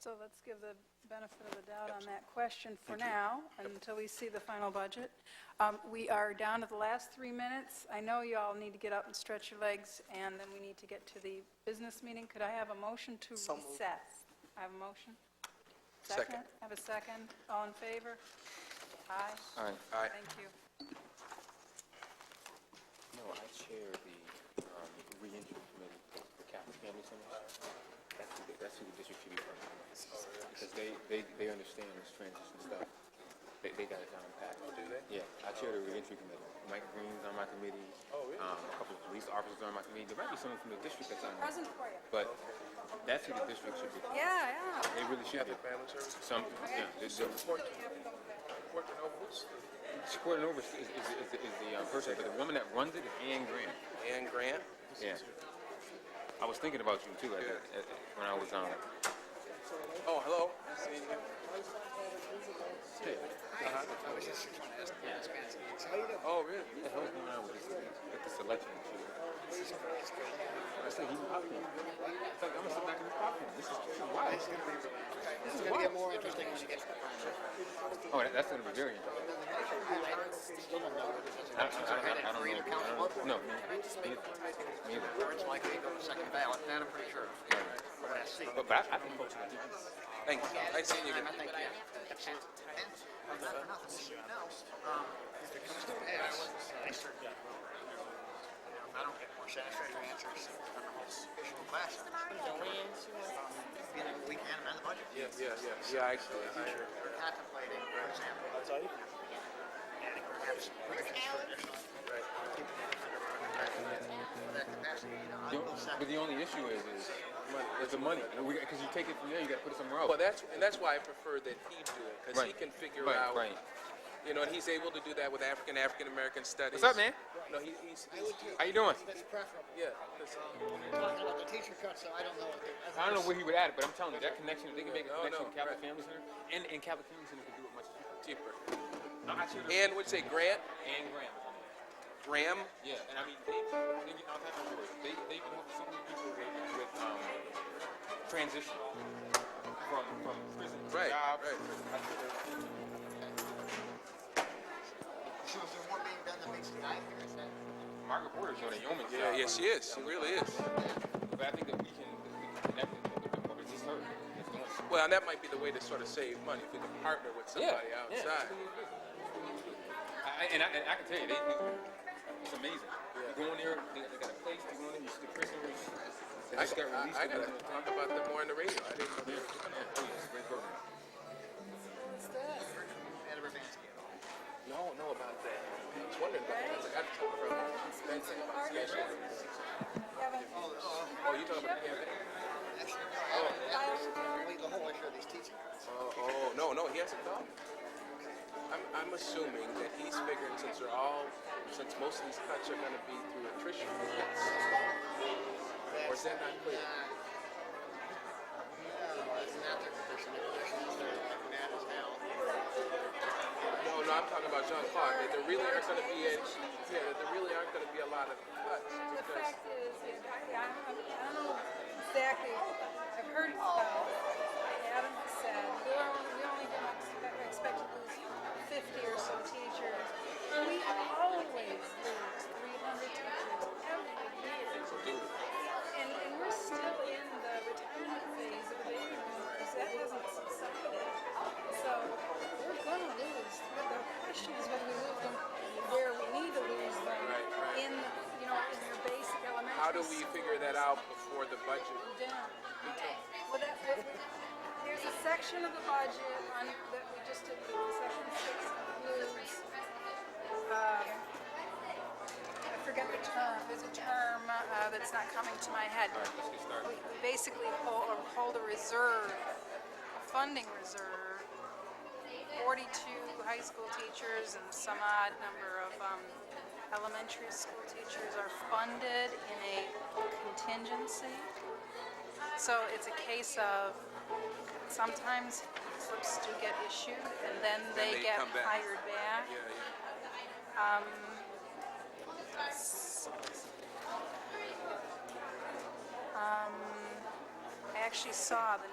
So let's give the benefit of the doubt on that question for now, until we see the final budget. Um, We are down to the last three minutes. I know you all need to get up and stretch your legs, and then we need to get to the business meeting. Could I have a motion to So moved. recess? I have a motion? Second. Have a second? All in favor? Aye. All right. All right. Thank you. No, I chair the um, reentry committee for the Catholic Family Center. That's who, the- that's who the district should be working with. Because they, they, they understand this transition stuff. They, they got it down pat. Oh, Do they? Yeah, I chair the reentry committee. Mike Green's on my committee. Oh, really? Um, a couple of police officers are on my committee. There might be someone from the district that's on there. Present for you. But that's who the district should be. Yeah, yeah. They really should be. Some, yeah, they should. Supporting Nova is, is, is, the- is the uh, person, but the woman that runs it is Ann Grant. Ann Grant? Yeah. I was thinking about you too at, at, at, when I was um, on. Oh, hello. Yeah. I was just trying to ask the ask Nancy, it's how you doing? Oh, really? What the hell's going on with this, with this election? issue? It's great, it's great. I said, he's popcorn. It's like, I'm gonna sit back in the popcorn. This is this is wild. It's gonna be really, it's gonna get more interesting when it gets to the final. Oh, that, that's gonna be very interesting. I still don't know whether there's I, I, I, a- so I had I it don't free to count know. I vote. don't- No, me, me me either. Or it's likely to go to second ballot, that I'm pretty sure. From what I see. But, but I, I think folks are gonna do it. Thanks. I seen you. And I think, yeah, that's it. And not for nothing, so you know, um, if it comes to pass, I certainly will. You know, if I don't get more satisfactory answers than the whole official class. You know, we can amend the budget. Yeah, yeah, yeah, actually. We're contemplating, for example, adding perhaps some provisions for additional. keeping it under our capacity. For that capacity, you know, I The will on- But second. the only issue is, is, is the money. Because you take it from there, you gotta put it somewhere else. Well, that's, and that's why I prefer that he do it, because he Right. can figure Right, out, right. you know, and he's able to do that with African, African-American studies. up, man? No, he, he's, he's- How you doing? That's preferable. yeah, 'cause- We're Talking about the teacher cut, so I don't know if they. I don't know where he would add it, but I'm telling you, that connection, if they can make a No, connection no, with Catholic right. Family Center, and, and Catholic Family Center can do it much cheaper. cheaper. No, I should And would say Grant, and Graham. Graham, Yeah, and I mean, they, they get all types of work. They, they can help so many people with, with um, transition from, from prison to Right, job. right. I should have- So is there more being done that makes it nine here, is that? Margaret Porter's doing a yeoman's yeah, job. yeah, she is, she really is. But I think that we can, we can connect it a little bit more. It's just her. It's doing it. Well, and that might be the way to sort of save money, if you can partner with somebody yeah, Yeah, outside. that's what we do. I, I- and, I, and I can tell you, they, they- it's amazing. You go in there, they, they got a place, you go in there, you see the prisoners. They I just got released. I- I gotta Yeah, talk about them more on the radio, I didn't know they were oh yeah, it's a great program. Ed Urbanski. No, I don't know about that. I was wondering about that. I was like, I have to talk about Oh, you talking about the campaign? Actually, no, I haven't, that's the whole issue of these teaching cuts. Oh, oh, no, no, he hasn't gone. I'm, I'm assuming that he's figuring since they're all, since most of these cuts are gonna be through attrition. Or is that not clear? No, it's not their position, their position is they're like mad as hell. No, no, I'm talking about John Clark, that there really aren't gonna be, any- yeah, that there really aren't gonna be a lot of cuts. The because- fact is, yeah, I, I I don't know exactly, I've heard about, I haven't said, we only, we only don't expect, expect to lose fifty or so teachers. We always lose three hundred teachers every year. And, and we're still in the retirement phase of the baby boomers, that hasn't subsided. So, we're gonna lose, but the question is whether we lose them where we need to lose them. In, you know, in your basic elementary. How do we figure that out before the budget? down. Well, that, that, there's a section of the budget on, that we just did, section six includes, um, I forget the term, there's a term, uh, that's not coming to my head. Let's get started. We we basically hold, or hold a reserve, a funding reserve, forty-two high school teachers and some odd number of, um, elementary school teachers are funded in a contingency. So it's a case of, sometimes slips do get issued, and then they they get come back. hired back. Yeah, yeah. I actually saw the